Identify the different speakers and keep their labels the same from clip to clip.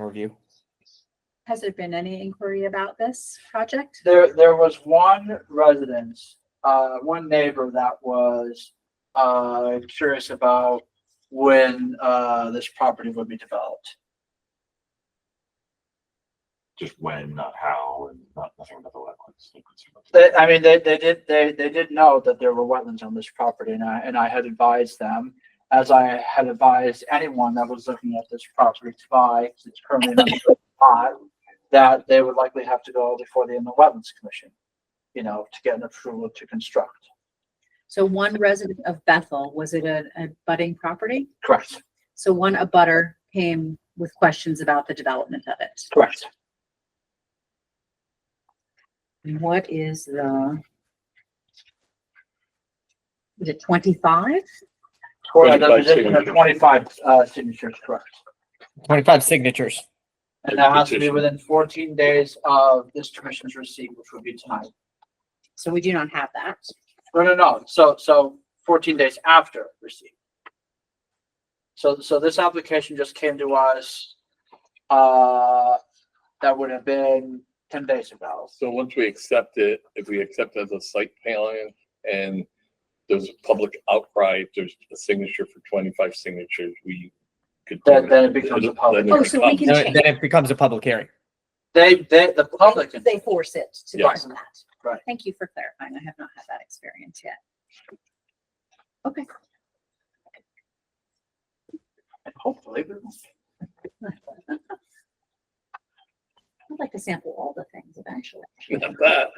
Speaker 1: review.
Speaker 2: Has there been any inquiry about this project?
Speaker 3: There, there was one residence, uh, one neighbor that was, uh, curious about when, uh, this property would be developed.
Speaker 4: just when, not how, and not nothing about the wetlands. no concern about the
Speaker 3: They, I mean, they, they did, they, they did know that there were wetlands on this property and I, and I had advised them, as I had advised anyone that was looking at this property to buy, 'cause it's currently an undeveloped lot, that they would likely have to go before the inland wetlands commission, you know, to get an approval to construct.
Speaker 2: So one resident of Bethel, was it a, a budding property?
Speaker 3: Correct,
Speaker 2: So one abutter came with questions about the development of it.
Speaker 3: correct.
Speaker 2: And What is the? Is it twenty-five?
Speaker 3: Correct, that
Speaker 4: 25
Speaker 3: was it,
Speaker 4: signatures.
Speaker 3: twenty-five, uh, signatures, correct.
Speaker 1: Twenty-five signatures.
Speaker 3: And that has to be
Speaker 4: Petition.
Speaker 3: within fourteen days of this commission's receipt, which would be tonight.
Speaker 2: So we do not have that.
Speaker 3: No, no, no. So, so fourteen days after receipt. So, so this application just came to us, uh, that would have been ten days ago.
Speaker 5: So once we accept it, if we accept it as a site plan and there's a public outcry, if there's a signature for twenty-five signatures, we could. do
Speaker 3: Then- then it becomes a public-
Speaker 5: Then it
Speaker 2: Oh, so we
Speaker 5: becomes-
Speaker 1: Then it- then it becomes a public hearing.
Speaker 3: They, they, the public, can-
Speaker 2: They force it to
Speaker 5: Yes.
Speaker 2: become that.
Speaker 3: Right.
Speaker 2: Thank you for clarifying. I have not had that experience yet. Okay.
Speaker 3: hopefully, we won't.
Speaker 2: I'd like to sample all the things eventually.
Speaker 5: Not that.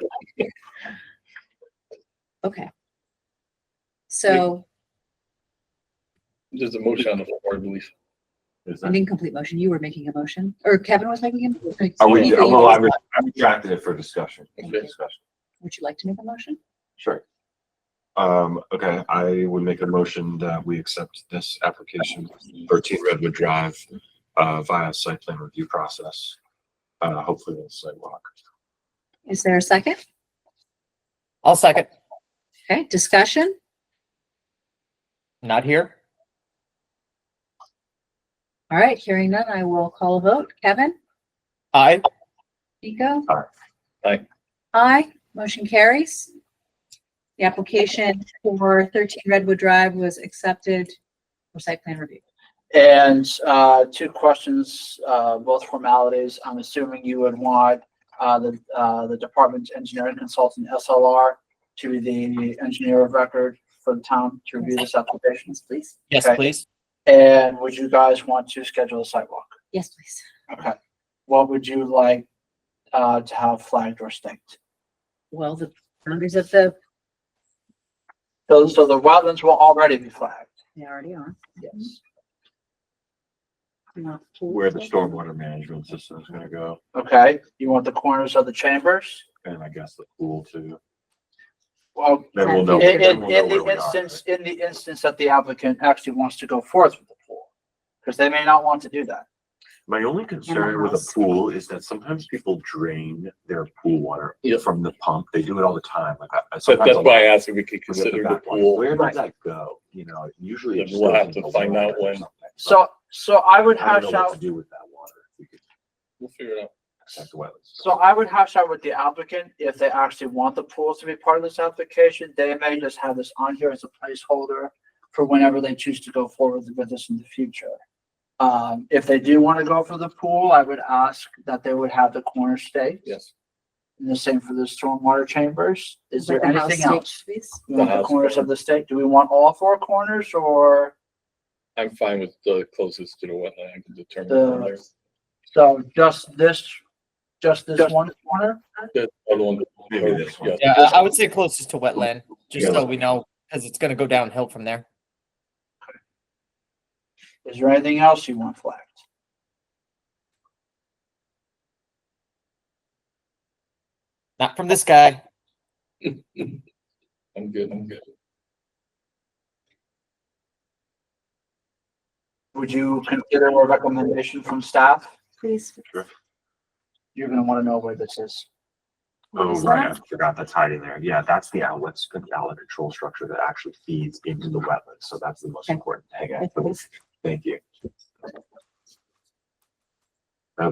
Speaker 2: Okay. So
Speaker 5: There's a motion on the floor, I believe.
Speaker 4: Is
Speaker 2: an
Speaker 4: that-
Speaker 2: incomplete motion. You were making a motion or Kevin was making a motion.
Speaker 4: Are we,
Speaker 2: Anything.
Speaker 4: well, I re- I retracted it for discussion.
Speaker 2: Thank you.
Speaker 4: Discussion.
Speaker 2: Would you like to make a motion?
Speaker 4: Sure. Um, okay, I would make a motion that we accept this application, thirteen Redwood Drive, uh, via site plan review process. Uh, hopefully with sidewalk.
Speaker 2: Is there a second?
Speaker 1: I'll second.
Speaker 2: Okay, discussion?
Speaker 1: Not here.
Speaker 2: All right, hearing none, I will call a vote. Kevin?
Speaker 1: Aye.
Speaker 2: Nico?
Speaker 4: Aye.
Speaker 5: Aye.
Speaker 2: Aye, motion carries. The application for thirteen Redwood Drive was accepted for site plan review.
Speaker 3: And uh, two questions, uh, both formalities. I'm assuming you would want uh, the uh, the department's engineering consultant SLR to be the engineer of record for the town to review this application.
Speaker 2: Yes, please.
Speaker 1: Yes,
Speaker 3: Okay.
Speaker 1: please.
Speaker 3: And would you guys want to schedule a sidewalk?
Speaker 2: Yes, please.
Speaker 3: Okay. What would you like uh, to have flagged or staked?
Speaker 2: Well, the boundaries of the,
Speaker 3: So, so the wetlands will already be flagged.
Speaker 2: they already are.
Speaker 3: Yes.
Speaker 4: Where the stormwater management system is gonna go,
Speaker 3: Okay. You want the corners of the chambers?
Speaker 4: and I guess the pool too.
Speaker 3: Well,
Speaker 4: Then we'll know.
Speaker 3: In,
Speaker 4: then
Speaker 3: in,
Speaker 4: we'll know
Speaker 3: in
Speaker 4: where
Speaker 3: the
Speaker 4: we are.
Speaker 3: instance, in the instance that the applicant actually wants to go forth with the pool, because they may not want to do that.
Speaker 4: My only concern with
Speaker 2: house.
Speaker 4: a pool is that sometimes people drain their pool water
Speaker 5: Yeah.
Speaker 4: from the pump. They do it all the time. Like I- I
Speaker 5: So
Speaker 4: sometimes
Speaker 5: that's
Speaker 4: I'll-
Speaker 5: why I asked if we could
Speaker 4: I'll get the
Speaker 5: consider the
Speaker 4: back one.
Speaker 5: pool.
Speaker 4: Where does that go? You know, usually.
Speaker 5: Then
Speaker 4: it
Speaker 5: we'll
Speaker 4: goes
Speaker 5: have
Speaker 4: in
Speaker 5: to
Speaker 4: the
Speaker 5: find
Speaker 4: water
Speaker 5: out
Speaker 4: or
Speaker 5: when.
Speaker 4: something.
Speaker 3: So, so I would
Speaker 4: I don't
Speaker 3: hash
Speaker 4: know what to
Speaker 3: out,
Speaker 4: do with that water. We could
Speaker 5: We'll figure it out.
Speaker 4: check the wetlands.
Speaker 3: so I would hash out with the applicant if they actually want the pools to be part of this application. They may just have this on here as a placeholder for whenever they choose to go forward with this in the future. Um, if they do want to go for the pool, I would ask that they would have the corner staked.
Speaker 5: Yes.
Speaker 3: And the same for the stormwater chambers. Is there
Speaker 2: Like the house
Speaker 3: anything
Speaker 2: stakes,
Speaker 3: else?
Speaker 2: please?
Speaker 3: You want
Speaker 5: The
Speaker 3: the
Speaker 5: house
Speaker 3: corners
Speaker 5: corner.
Speaker 3: of the stake? Do we want all four corners or,
Speaker 5: I'm fine with the closest to the wetland. I can determine from there.
Speaker 3: The- so just this, just this
Speaker 5: Just-
Speaker 3: one corner?
Speaker 5: The other one.
Speaker 4: Maybe this one.
Speaker 5: Yes.
Speaker 1: Yeah, I- I would say closest to wetland, just
Speaker 4: Yeah.
Speaker 1: so we know, because it's gonna go downhill from there.
Speaker 3: Is there anything else you want flagged?
Speaker 1: Not from this guy.
Speaker 5: I'm good, I'm good.
Speaker 3: Would you consider a recommendation from staff?
Speaker 2: Please.
Speaker 3: You're gonna wanna know where this is.
Speaker 2: What
Speaker 4: Oh,
Speaker 2: is
Speaker 4: right. I
Speaker 2: that?
Speaker 4: forgot that's hiding there. Yeah, that's the outlets, the outlet control structure that actually feeds into the wetlands. So that's the most
Speaker 2: Okay.
Speaker 4: important thing.
Speaker 2: Yes, please.
Speaker 4: Thank you.